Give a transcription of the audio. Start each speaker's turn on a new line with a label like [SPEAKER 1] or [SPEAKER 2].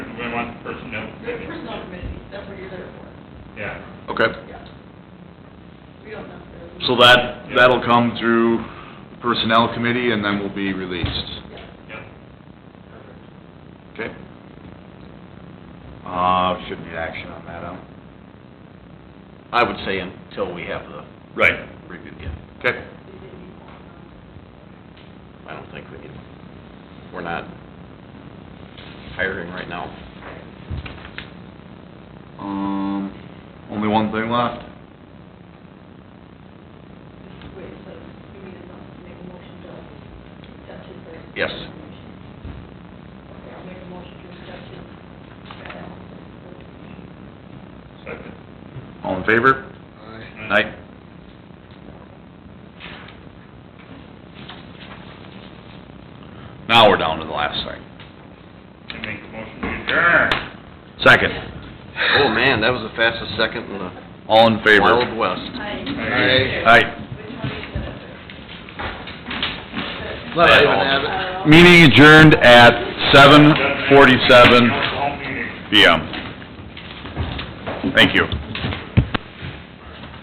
[SPEAKER 1] want personnel
[SPEAKER 2] The
[SPEAKER 1] committee.
[SPEAKER 2] personnel committee, that's what you're there for.
[SPEAKER 1] Yeah.
[SPEAKER 3] Okay,
[SPEAKER 2] Yeah. We don't necessarily.
[SPEAKER 3] so that, that'll come through Personnel Committee and then will be released,
[SPEAKER 2] Yeah.
[SPEAKER 1] Yep.
[SPEAKER 3] okay?
[SPEAKER 4] Uh, shouldn't need action on that, huh? I would say until we have the
[SPEAKER 3] Right.
[SPEAKER 4] review, yeah.
[SPEAKER 3] Okay,
[SPEAKER 4] I don't think we need, we're not hiring right now.
[SPEAKER 3] um, only one thing left.
[SPEAKER 2] Wait, so you need to make a motion to accept his. resignation.
[SPEAKER 4] Yes.
[SPEAKER 2] Okay, I'll make a motion to accept his. resignation.
[SPEAKER 1] Second.
[SPEAKER 3] All in favor?
[SPEAKER 4] Mm-hmm.
[SPEAKER 3] Aye. Now we're down to the last thing.
[SPEAKER 1] I make a motion to adjourn.
[SPEAKER 3] Second,
[SPEAKER 4] Oh, man, that was the fastest second in the
[SPEAKER 3] all in
[SPEAKER 4] Wild
[SPEAKER 3] favor?
[SPEAKER 4] West.
[SPEAKER 2] Aye.
[SPEAKER 3] Aye.
[SPEAKER 2] Which one is it?
[SPEAKER 3] Let
[SPEAKER 4] Ivan have
[SPEAKER 2] Uh,
[SPEAKER 3] Meeting adjourned at seven forty-seven
[SPEAKER 1] Council home meeting.
[SPEAKER 3] PM. Thank you.